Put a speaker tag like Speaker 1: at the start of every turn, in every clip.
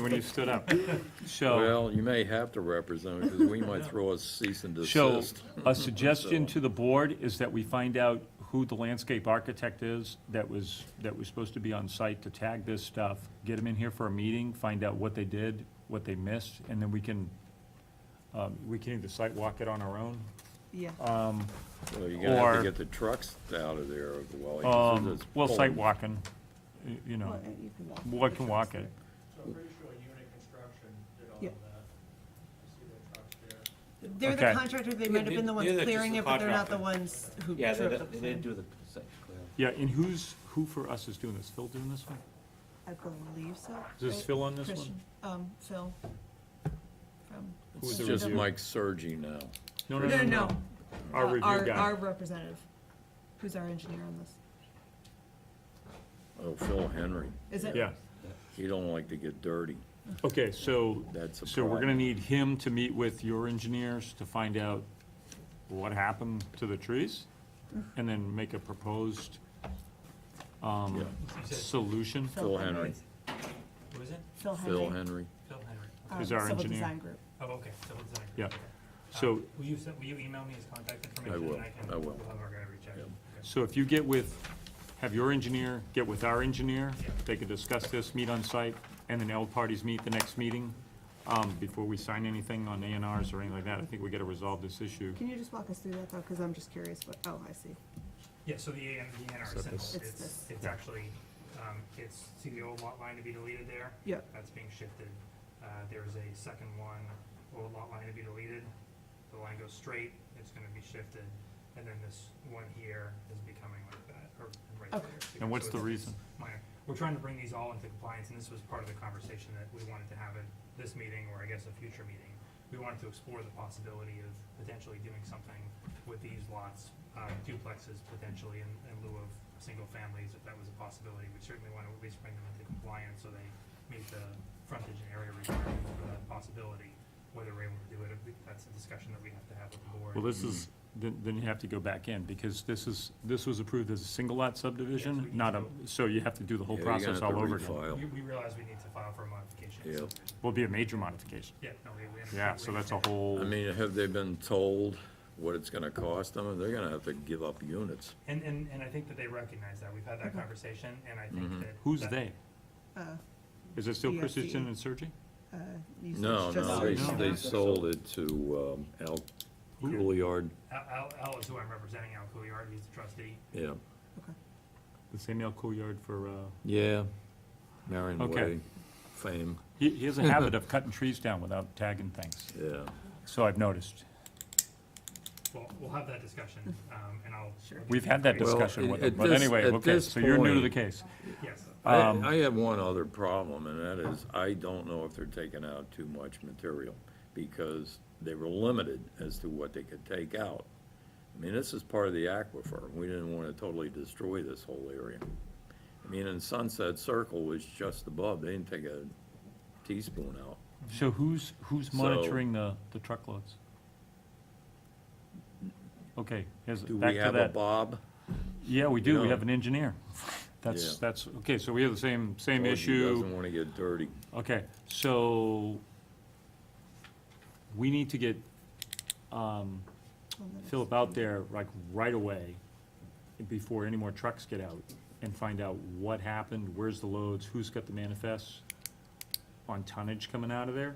Speaker 1: when you stood up. So,
Speaker 2: Well, you may have to represent because we might throw a cease and
Speaker 1: so
Speaker 2: desist.
Speaker 1: a suggestion to the board is that we find out who the landscape architect is that was, that was supposed to be on site to tag this stuff, get them in here for a meeting, find out what they did, what they missed, and then we can, um, we can either site walk it on our own.
Speaker 3: Yeah,
Speaker 1: Um,
Speaker 2: Well, you're gonna have
Speaker 1: or-
Speaker 2: to get the trucks out of there while he
Speaker 1: Um,
Speaker 2: it's
Speaker 1: well, site
Speaker 2: pulled.
Speaker 1: walking, y- you know,
Speaker 3: Well, you can walk.
Speaker 1: what can walk it.
Speaker 4: So I'm pretty sure Unit Construction did all
Speaker 3: Yeah.
Speaker 4: of that. I see their trucks there.
Speaker 3: they're
Speaker 1: Okay.
Speaker 3: the contractor, they might have been the ones
Speaker 5: They're the-
Speaker 3: clearing
Speaker 5: just
Speaker 3: it,
Speaker 5: the
Speaker 3: but they're not the
Speaker 5: contractor.
Speaker 3: ones who drew
Speaker 5: Yeah,
Speaker 3: up
Speaker 5: they,
Speaker 3: the
Speaker 5: they didn't
Speaker 3: plan.
Speaker 5: do the site clearance.
Speaker 1: Yeah, and who's, who for us is doing this? Phil doing this one?
Speaker 3: I believe so.
Speaker 1: Is this
Speaker 3: right?
Speaker 1: Phil on this one?
Speaker 3: Christian, um, Phil. from-
Speaker 1: Who's
Speaker 2: It's
Speaker 1: the
Speaker 2: just
Speaker 1: reviewer?
Speaker 2: Mike Sergi now.
Speaker 3: No, no, no.
Speaker 1: Our
Speaker 3: Uh,
Speaker 1: review
Speaker 3: Our
Speaker 1: guy.
Speaker 3: representative, who's our engineer on this.
Speaker 2: Oh, Phil Henry.
Speaker 3: Is it?
Speaker 1: Yeah.
Speaker 2: He don't like to get dirty.
Speaker 1: Okay, so,
Speaker 2: That's a
Speaker 1: so we're gonna
Speaker 2: problem.
Speaker 1: need him to meet with your engineers to find out what happened to the trees? And then make a proposed, um, solution?
Speaker 2: Phil Henry.
Speaker 3: Henry's-
Speaker 5: Who is it?
Speaker 3: Phil
Speaker 2: Phil
Speaker 3: Henry.
Speaker 2: Henry.
Speaker 5: Phil Henry.
Speaker 3: um,
Speaker 1: is our
Speaker 3: Civil
Speaker 1: engineer.
Speaker 3: Design Group.
Speaker 6: Oh, okay, so it's not.
Speaker 1: Yeah.
Speaker 6: okay.
Speaker 1: So,
Speaker 6: Um, Will you, se- will you email me his contact information?
Speaker 2: will,
Speaker 6: and can-
Speaker 2: I will.
Speaker 6: We'll have our guy reach out. Okay.
Speaker 1: so if you get with, have your engineer, get with our engineer, they can discuss this, meet on site, and then all parties meet the next meeting, um, before we sign anything on A and Rs or anything like that, I think we gotta resolve this issue.
Speaker 3: Can you just walk us through that though, because I'm just curious, what, oh, I see.
Speaker 6: Yeah, so the AN, the NR
Speaker 1: So
Speaker 6: symbol,
Speaker 1: this-
Speaker 3: It's
Speaker 6: it's,
Speaker 3: this.
Speaker 6: it's actually, um, it's, see the old lot line to be deleted there?
Speaker 3: Yeah.
Speaker 6: That's being shifted. Uh, there's a second one, old lot line to be deleted. The line goes straight, it's gonna be shifted, and then this one here is becoming like that, or right
Speaker 3: Okay.
Speaker 6: there.
Speaker 1: And what's
Speaker 6: So
Speaker 1: the
Speaker 6: it's-
Speaker 1: reason?
Speaker 6: minor. We're trying to bring these all into compliance, and this was part of the conversation that we wanted to have at this meeting, or I guess a future meeting. We wanted to explore the possibility of potentially doing something with these lots, uh, duplexes potentially in, in lieu of single families, if that was a possibility. We certainly want to at least bring them into compliance so they meet the frontage and area requirements for that possibility. Whether we're able to do it, I think that's a discussion that we have to have with the board.
Speaker 1: Well, this is, then, then you have to go back in, because this is, this was approved as a single lot
Speaker 6: Yes, we
Speaker 1: subdivision,
Speaker 6: need
Speaker 1: not a,
Speaker 6: to-
Speaker 1: so you have to do the whole
Speaker 2: Yeah, you're gonna
Speaker 1: process
Speaker 2: have to
Speaker 1: all over again.
Speaker 2: refile.
Speaker 6: We, we realize we need to file for a modification.
Speaker 2: Yeah.
Speaker 1: Will be a major modification,
Speaker 6: Yeah, no, we, we. understand-
Speaker 1: yeah,
Speaker 6: we
Speaker 1: so that's a
Speaker 6: understand.
Speaker 1: whole,
Speaker 2: I mean, have they been told what it's gonna cost them? They're gonna have to give up units.
Speaker 6: And, and, and I think that they recognize that. We've had that conversation, and I think
Speaker 1: Mm-hmm.
Speaker 6: that.
Speaker 1: who's
Speaker 6: that-
Speaker 1: they?
Speaker 3: Uh,
Speaker 1: Is it still
Speaker 3: DFC.
Speaker 1: Christensen and Sergi?
Speaker 3: uh, you said
Speaker 2: No,
Speaker 3: it's just
Speaker 2: no,
Speaker 3: you.
Speaker 2: they,
Speaker 1: No.
Speaker 2: they sold it to, um, Al Couliard,
Speaker 6: Al, Al, Al is who I'm representing, Al Couillard, he's the trustee.
Speaker 2: yeah.
Speaker 1: The Samuel Couillard for, uh,
Speaker 2: Yeah, Marion
Speaker 1: Okay.
Speaker 2: Way, fame,
Speaker 1: he, he has a habit of cutting trees down without tagging things,
Speaker 2: yeah.
Speaker 1: so I've noticed.
Speaker 6: Well, we'll have that discussion, um, and I'll.
Speaker 3: Sure.
Speaker 1: We've had that
Speaker 2: Well,
Speaker 1: discussion with
Speaker 2: at
Speaker 1: him, but
Speaker 2: this-
Speaker 1: anyway,
Speaker 2: at
Speaker 1: okay,
Speaker 2: this
Speaker 1: so you're new to the
Speaker 2: point-
Speaker 1: case.
Speaker 6: Yes,
Speaker 2: I,
Speaker 1: Um,
Speaker 2: I have one other problem, and that is, I don't know if they're taking out too much material, because they were limited as to what they could take out. I mean, this is part of the aquifer, and we didn't wanna totally destroy this whole area. I mean, and Sunset Circle was just above, they didn't take a teaspoon out.
Speaker 1: So who's, who's
Speaker 2: So-
Speaker 1: monitoring the, the truckloads? Okay, here's,
Speaker 2: Do
Speaker 1: back
Speaker 2: we
Speaker 1: to
Speaker 2: have a
Speaker 1: that.
Speaker 2: Bob?
Speaker 1: Yeah, we do, we
Speaker 2: Yeah.
Speaker 1: have an engineer. That's,
Speaker 2: Yeah.
Speaker 1: that's, okay, so we have the same, same
Speaker 2: Or he
Speaker 1: issue.
Speaker 2: Doesn't wanna get dirty.
Speaker 1: Okay, so we need to get um,
Speaker 3: Hold on.
Speaker 1: Philip out there like right away before any more trucks get out and find out what happened, where's the loads, who's got the manifests on tonnage coming out of there?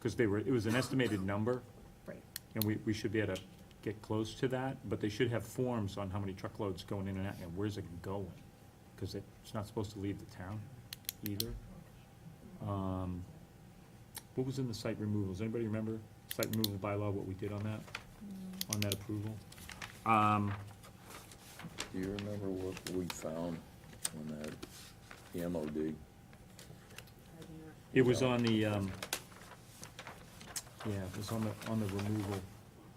Speaker 1: Because they were, it was an estimated number
Speaker 3: Right.
Speaker 1: and we, we should be able to get close to that, but they should have forms on how many truckloads going in and out, and where's it going? Because it's not supposed to leave the town either. Um, What was in the site removals, anybody remember site removal bylaw, what we did on that, on that approval? Um,
Speaker 2: Do you remember what we found on that, the MOD?
Speaker 1: It was on the, um, yeah, it was on the, on the removal,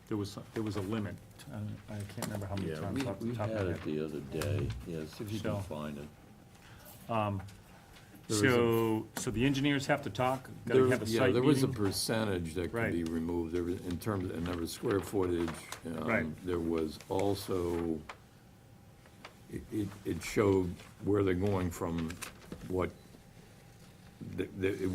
Speaker 1: there was, there was a limit, Uh, I can't remember how many
Speaker 2: Yeah,
Speaker 1: times
Speaker 2: we,
Speaker 1: off the
Speaker 2: we
Speaker 1: top
Speaker 2: had
Speaker 1: of my head.
Speaker 2: it the other day, yes, if you
Speaker 1: So-
Speaker 2: can find it. There was a-
Speaker 1: So, so the engineers have to talk,
Speaker 2: There
Speaker 1: gotta
Speaker 2: was-
Speaker 1: have a
Speaker 2: Yeah,
Speaker 1: site
Speaker 2: there was a
Speaker 1: meeting.
Speaker 2: percentage that could
Speaker 1: Right.
Speaker 2: be removed, there was, in terms, and there was square footage. um,
Speaker 1: Right.
Speaker 2: There was also, it, it, it showed where they're going from what, the, the, it